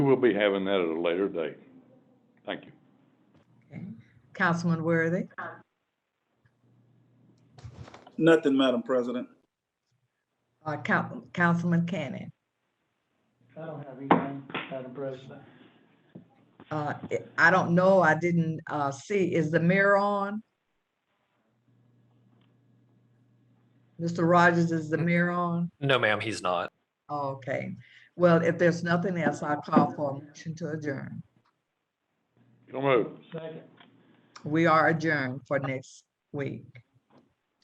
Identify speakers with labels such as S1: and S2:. S1: We'll be having that at a later date. Thank you.
S2: Councilman Worthy,
S3: Nothing, Madam President.
S2: uh, Coun- Councilman Cannon.
S4: I don't have anything, Madam President.
S2: Uh, I- I don't know, I didn't, uh, see, is the mirror on? Mr. Rogers, is the mirror on?
S5: No, ma'am, he's not.
S2: Okay, well, if there's nothing else, I'll call for a motion to adjourn.
S1: So moved.
S4: Second.
S2: We are adjourned for next week.